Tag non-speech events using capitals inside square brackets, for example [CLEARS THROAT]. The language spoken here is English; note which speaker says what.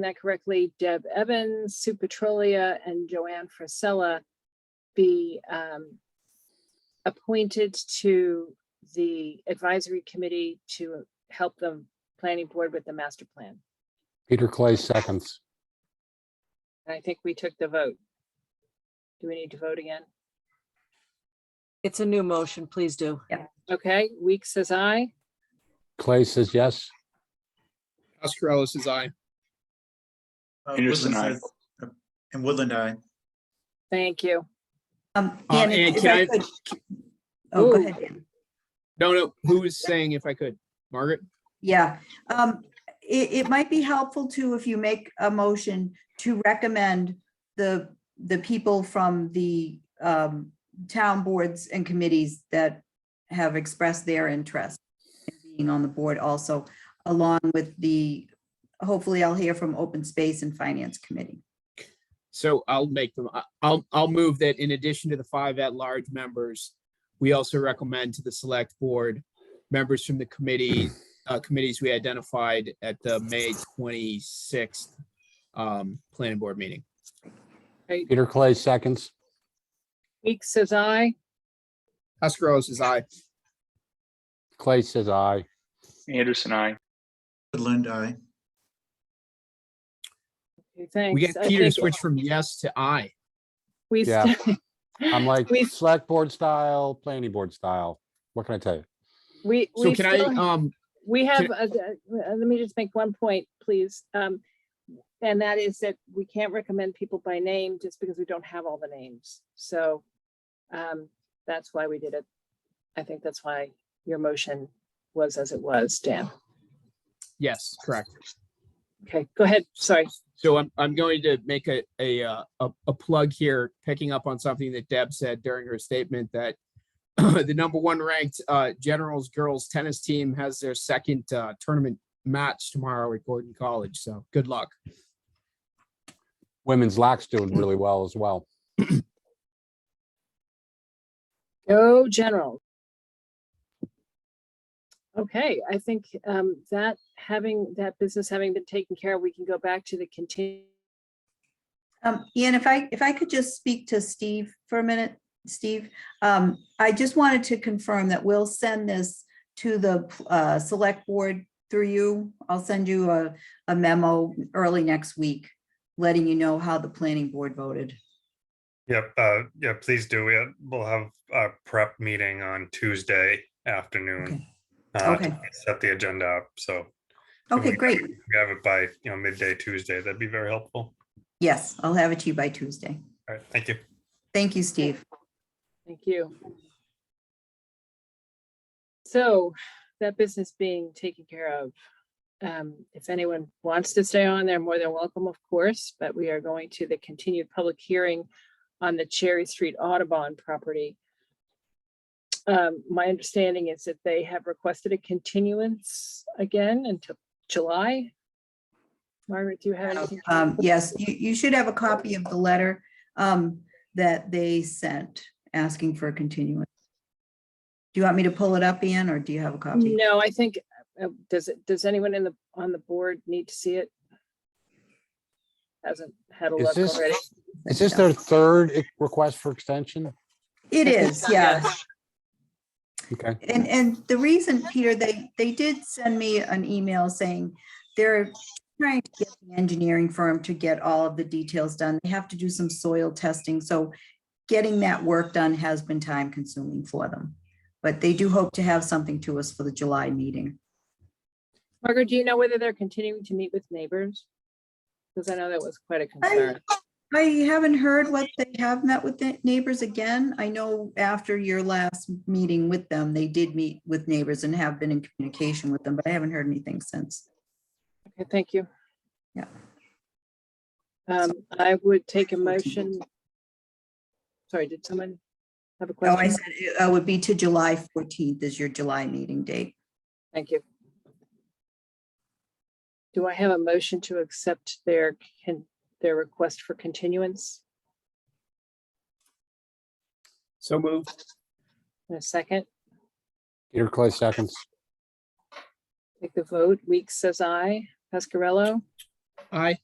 Speaker 1: that correctly, Deb Evans, Sue Petrolia, and Joanne Frisella be um, appointed to the advisory committee to help the planning board with the master plan.
Speaker 2: Peter Clay seconds.
Speaker 1: And I think we took the vote. Do we need to vote again?
Speaker 3: It's a new motion, please do.
Speaker 1: Okay, Weeks says aye.
Speaker 2: Clay says yes.
Speaker 4: Australis is I.
Speaker 5: Uh,
Speaker 6: Anderson,
Speaker 5: Woodland says- And Woodland, I.
Speaker 1: Thank you.
Speaker 7: Um,
Speaker 4: Uh, Ann,
Speaker 7: Ann, if if
Speaker 4: can
Speaker 7: I
Speaker 4: I-
Speaker 7: could. Oh,
Speaker 1: Ooh.
Speaker 7: go ahead, Ann.
Speaker 4: No, no, who was saying if I could? Margaret?
Speaker 7: Yeah, um, it, it might be helpful too, if you make a motion to recommend the, the people from the, um, town boards and committees that have expressed their interest in being on the board also, along with the, hopefully I'll hear from Open Space and Finance Committee.
Speaker 4: So I'll make them, I- I'll, I'll move that in addition to the five at-large members, we also recommend to the select board, members from the committee, uh, committees we identified at the May twenty-sixth um, planning board meeting.
Speaker 2: Peter Clay seconds.
Speaker 1: Weeks says aye.
Speaker 4: Australis is I.
Speaker 2: Clay says aye.
Speaker 6: Anderson, I.
Speaker 5: Woodland, I.
Speaker 1: Okay,
Speaker 4: We
Speaker 1: Thanks.
Speaker 4: got
Speaker 1: I
Speaker 4: Peter
Speaker 1: think
Speaker 4: to switch from yes to I.
Speaker 1: We.
Speaker 2: Yeah.
Speaker 1: st- [LAUGHS]
Speaker 2: I'm like
Speaker 1: We,
Speaker 2: select board style, planning board style. What can I tell you?
Speaker 1: we,
Speaker 4: So
Speaker 1: we
Speaker 4: can I,
Speaker 1: still
Speaker 4: um,
Speaker 1: We have,
Speaker 4: Can-
Speaker 1: a- a- uh, let me just make one point, please. Um, And that is that we can't recommend people by name just because we don't have all the names. So um, that's why we did it. I think that's why your motion was as it was, Dan.
Speaker 4: yes, correct.
Speaker 1: Okay, go ahead. Sorry.
Speaker 4: So I'm, I'm going to make a, a, uh, a, a plug here, picking up on something that Deb said during her statement that [CLEARS THROAT] the number one ranked, uh, Generals Girls Tennis Team has their second, uh, tournament match tomorrow at Gordon College. So good luck.
Speaker 2: Women's lacrosse doing
Speaker 1: [LAUGHS]
Speaker 2: really well as well.
Speaker 1: Go general. Okay, I think um, that having, that business having been taken care of, we can go back to the continue.
Speaker 7: Um, Ian, if I, if I could just speak to Steve for a minute, Steve. Um, I just wanted to confirm that we'll send this to the, uh, select board through you. I'll send you a, a memo early next week, letting you know how the planning board voted.
Speaker 8: Yep, uh, yeah, please do. We, we'll have a prep meeting on Tuesday afternoon.
Speaker 7: Okay.
Speaker 8: uh, to
Speaker 7: Okay.
Speaker 8: Set the agenda up, so. if
Speaker 7: Okay,
Speaker 8: we-
Speaker 7: great.
Speaker 8: if We have it by, you know, midday Tuesday, that'd be very helpful.
Speaker 7: Yes, I'll have it to you by Tuesday.
Speaker 8: All right, thank you.
Speaker 7: Thank you, Steve.
Speaker 1: Thank you. So that business being taken care of. Um, if anyone wants to stay on, they're more than welcome, of course, but we are going to the continued public hearing on the Cherry Street Audubon property. Um, my understanding is that they have requested a continuance again until July. Margaret, do you have anything?
Speaker 7: Um, yes, you, you should have a copy of the letter, um, that they sent asking for a continuance. Do you want me to pull it up, Ian, or do you have a copy?
Speaker 1: No, I think, uh, does it, does anyone in the, on the board need to see it? Hasn't had a
Speaker 2: Is
Speaker 1: look
Speaker 2: this-
Speaker 1: already.
Speaker 2: Is this their third e- request for extension?
Speaker 7: It
Speaker 1: I think
Speaker 7: is,
Speaker 1: so,
Speaker 7: yeah.
Speaker 2: Okay,
Speaker 7: And, and the reason, Peter, they, they did send me an email saying they're trying to get the engineering firm to get all of the details done. They have to do some soil testing, so getting that work done has been time consuming for them. But they do hope to have something to us for the July meeting.
Speaker 1: Margaret, do you know whether they're continuing to meet with neighbors? Because I know that was quite a concern.
Speaker 7: I, I haven't heard what they have met with the neighbors again. I know after your last meeting with them, they did meet with neighbors and have been in communication with them, but I haven't heard anything since.
Speaker 1: Okay, thank you.
Speaker 7: Yeah.
Speaker 1: Um, I would take a motion. Sorry, did someone have a
Speaker 7: No, I
Speaker 1: question?
Speaker 7: said it uh, would be to July fourteenth is your July meeting date.
Speaker 1: Thank you. Do I have a motion to accept their, can, their request for continuance?
Speaker 4: So move.
Speaker 1: In a second,
Speaker 2: Peter Clay seconds.
Speaker 1: take the vote. Weeks says aye. Pascarello,
Speaker 4: Aye.